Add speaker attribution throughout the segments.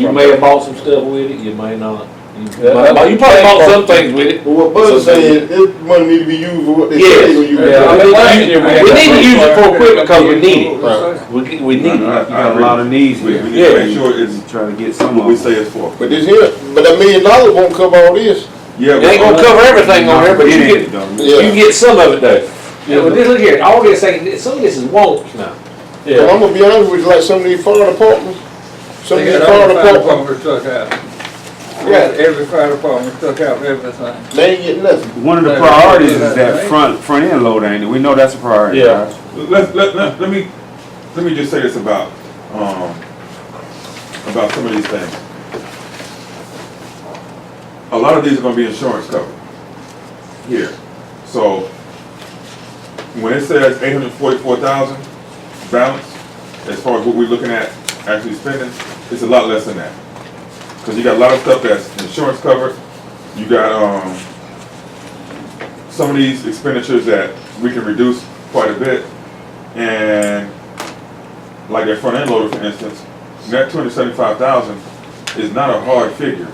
Speaker 1: You may have bought some stuff with it, you may not. You
Speaker 2: Yeah,
Speaker 1: might-
Speaker 2: I-
Speaker 1: you probably bought some things with it.
Speaker 2: But what Buzz said, this money need to be used for what they say when you.
Speaker 1: Yeah, I mean,
Speaker 2: Right.
Speaker 1: we- We need to use it for equipment because we need it. We, we
Speaker 3: I-
Speaker 1: need
Speaker 3: I-
Speaker 1: it.
Speaker 4: You got a lot of needs
Speaker 3: We,
Speaker 4: here.
Speaker 3: we need to
Speaker 1: Yeah.
Speaker 3: make sure it's
Speaker 4: Trying to get some
Speaker 3: what
Speaker 4: of
Speaker 3: we
Speaker 4: them.
Speaker 3: say it's for.
Speaker 2: But this here, but a million dollars won't cover all this.
Speaker 3: Yeah,
Speaker 1: It ain't
Speaker 3: but-
Speaker 1: gonna cover everything on here, but you
Speaker 3: It
Speaker 1: get,
Speaker 3: ain't, though.
Speaker 1: you
Speaker 2: Yeah.
Speaker 1: get some of it though.
Speaker 2: Yeah,
Speaker 1: but this, look here, all we're saying, some of this is wants now.
Speaker 2: But I'm gonna be honest with you, like some of these fire departments, some of
Speaker 5: They
Speaker 2: these
Speaker 5: had
Speaker 2: fire
Speaker 5: all the fire
Speaker 2: departments,
Speaker 5: departments took out.
Speaker 2: Yeah.
Speaker 5: Every fire department took out everything.
Speaker 2: they ain't getting nothing.
Speaker 4: One of the priorities is that front, front end loader, ain't it? We know that's a priority.
Speaker 1: Yeah.
Speaker 4: guys.
Speaker 3: Let, let, let, let me, let me just say this about, um, about some of these things. A lot of these are gonna be insurance covered here. So when it says eight hundred forty-four thousand balance, as far as what we're looking at actually spending, it's a lot less than that. Cause you got a lot of stuff that's insurance covered, you got, um, some of these expenditures that we can reduce quite a bit. And like that front end loader, for instance, that two hundred seventy-five thousand is not a hard figure.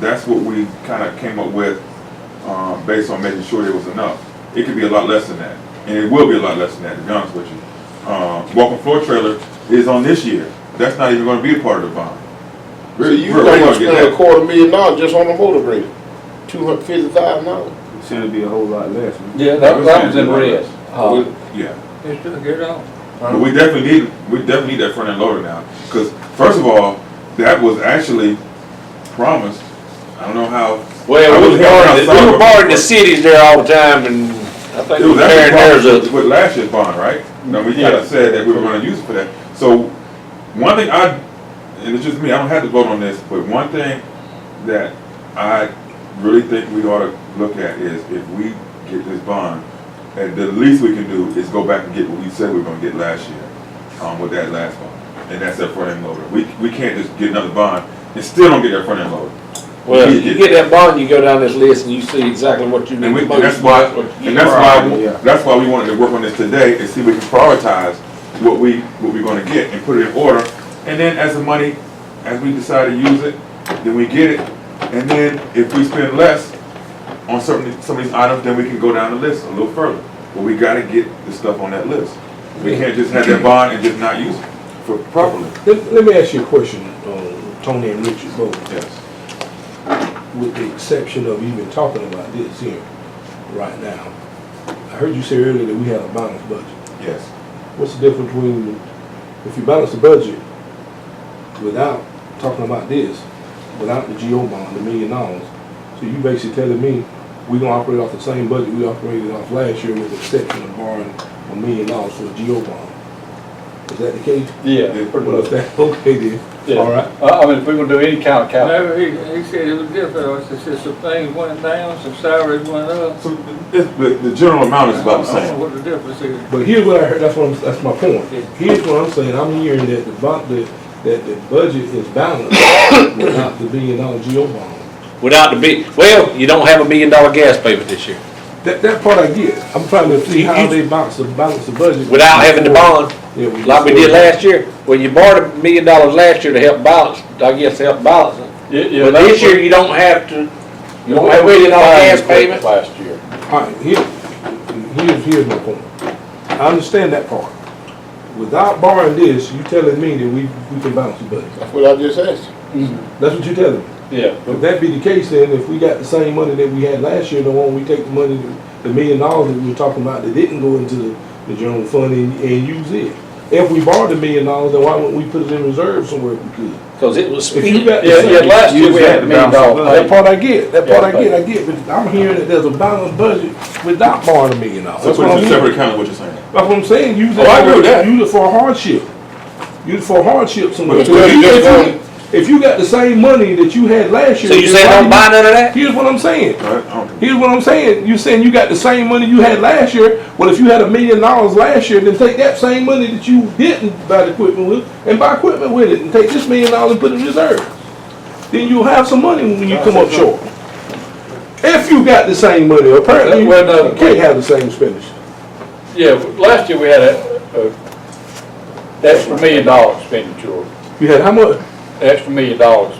Speaker 3: That's what we kind of came up with, um, based on making sure there was enough. It could be a lot less than that, and it will be a lot less than that, to be honest with you. Um, walking floor trailer is on this year. That's not even gonna be a part of the bond.
Speaker 2: So
Speaker 3: We're-
Speaker 2: you
Speaker 3: we're- we're
Speaker 2: gonna
Speaker 3: gonna get
Speaker 2: spend a
Speaker 3: that.
Speaker 2: quarter million dollars just on a motor grader, two hundred fifty thousand dollars.
Speaker 4: It shouldn't be a whole lot less. man.
Speaker 1: Yeah,
Speaker 3: that- that was in red.
Speaker 1: Uh,
Speaker 3: Yeah.
Speaker 5: They took it off.
Speaker 3: But we definitely need, we definitely need that front end loader now, because first of all, that was actually promised. I don't know how. I
Speaker 1: Well, we
Speaker 3: was
Speaker 1: were
Speaker 3: here
Speaker 1: borrowing,
Speaker 3: outside
Speaker 1: we were
Speaker 3: of-
Speaker 1: borrowing the cities there all the time and I think
Speaker 3: It
Speaker 1: we
Speaker 3: was
Speaker 1: were tearing theirs
Speaker 3: actually
Speaker 1: up.
Speaker 3: promised with last year's bond, right? No, we kind
Speaker 1: Yeah.
Speaker 3: of said that we were gonna use it for that. So, one thing I, and it's just me, I don't have to vote on this, but one thing that I really think we ought to look at is if we get this bond, and the least we can do is go back and get what we said we were gonna get last year, um, with that last bond. And that's that front end loader. We, we can't just get another bond and still don't get that front end loader.
Speaker 1: Well, you get that bond, you go down this list and you see exactly what you need.
Speaker 3: And we,
Speaker 1: the
Speaker 3: and that's
Speaker 1: most,
Speaker 3: why,
Speaker 1: what you
Speaker 3: and that's why,
Speaker 4: Yeah.
Speaker 3: that's why we wanted to work on this today and see if we can prioritize what we, what we're gonna get and put it in order. And then as the money, as we decide to use it, then we get it. And then if we spend less on certain, some of these items, then we can go down the list a little further. But we gotta get the stuff on that list. We can't just have that bond and just not use it for properly.
Speaker 6: Let, let me ask you a question, uh, Tony and Richard both,
Speaker 3: Yes.
Speaker 6: with the exception of even talking about this here, right now. I heard you say earlier that we had a balanced budget.
Speaker 3: Yes.
Speaker 6: What's the difference between, if you balance the budget without talking about this, without the GO bond, the million dollars? So you basically telling me, we gonna operate off the same budget we operated off last year with the exception of borrowing a million dollars for a GO bond? Is that the case?
Speaker 7: Yeah,
Speaker 6: Well, if that, okay
Speaker 7: Yeah.
Speaker 6: then, all right.
Speaker 7: I I mean, if we gonna do any kind of capital,
Speaker 5: No, he, he said it was different. He said some things went down, some salaries went up.
Speaker 3: So the, the, the general amount is about the
Speaker 5: I don't
Speaker 3: same.
Speaker 5: know what the difference is.
Speaker 6: But here's what I heard, that's what I'm, that's my point. Here's what I'm saying, I'm hearing that the bond, that, that the budget is balanced without the billion dollar GO bond.
Speaker 1: Without the big, well, you don't have a million dollar gas payment this year,
Speaker 6: That, that part I get, I'm trying to see
Speaker 1: You-
Speaker 6: how
Speaker 1: you-
Speaker 6: they balance, the balance the budget.
Speaker 1: without having the bond,
Speaker 6: Yeah, we-
Speaker 1: like we did last year. Well, you borrowed a million dollars last year to help balance, I guess, to help balance it.
Speaker 7: yeah, yeah.
Speaker 1: But
Speaker 7: that's
Speaker 1: this year, you don't have to, you don't have a million dollar gas payment.
Speaker 7: Last year.
Speaker 6: All right, here, here's, here's my point. I understand that part. Without borrowing this, you telling me that we, we can balance the budget.
Speaker 2: That's what I just asked.
Speaker 6: That's what you're telling me.
Speaker 7: Yeah,
Speaker 6: If that be the case, then if we got the same money that we had last year, then why don't we take the money, the million dollars that we were talking about that didn't go into the, the general fund and, and use it? If we borrowed the million dollars, then why wouldn't we put it in reserve somewhere if we could?
Speaker 1: Cause it was.
Speaker 6: If you got the
Speaker 7: yeah, yeah,
Speaker 6: same-
Speaker 7: last year we had a million dollar.
Speaker 6: That part I get, that part I get, I get, but I'm hearing that there's a balanced budget without borrowing a million dollars.
Speaker 3: So
Speaker 6: That's
Speaker 3: put it in
Speaker 6: what I'm
Speaker 3: a
Speaker 6: hearing.
Speaker 3: separate account, is what you're saying.
Speaker 6: That's what I'm saying, use it,
Speaker 3: Oh, I agree with
Speaker 6: for-
Speaker 3: that.
Speaker 6: use it for hardship. Use it for hardship somewhere.
Speaker 3: But it's really just
Speaker 6: If you-
Speaker 3: going-
Speaker 6: If you got the same money that you had last year.
Speaker 1: So you
Speaker 6: then
Speaker 1: say
Speaker 6: why
Speaker 1: don't
Speaker 6: you-
Speaker 1: buy none of that?
Speaker 6: Here's what I'm saying.
Speaker 3: All right? I don't-
Speaker 6: Here's what I'm saying. You're saying you got the same money you had last year. Well, if you had a million dollars last year, then take that same money that you didn't buy the equipment with and buy equipment with it and take this million dollars and put it in reserve. Then you'll have some money when you come up short. If you got the same money, apparently you
Speaker 7: Well, no.
Speaker 6: can't have the same expenditure.
Speaker 7: Yeah, last year we had a, a, that's for million dollar expenditure.
Speaker 6: You had how much?
Speaker 7: extra million dollars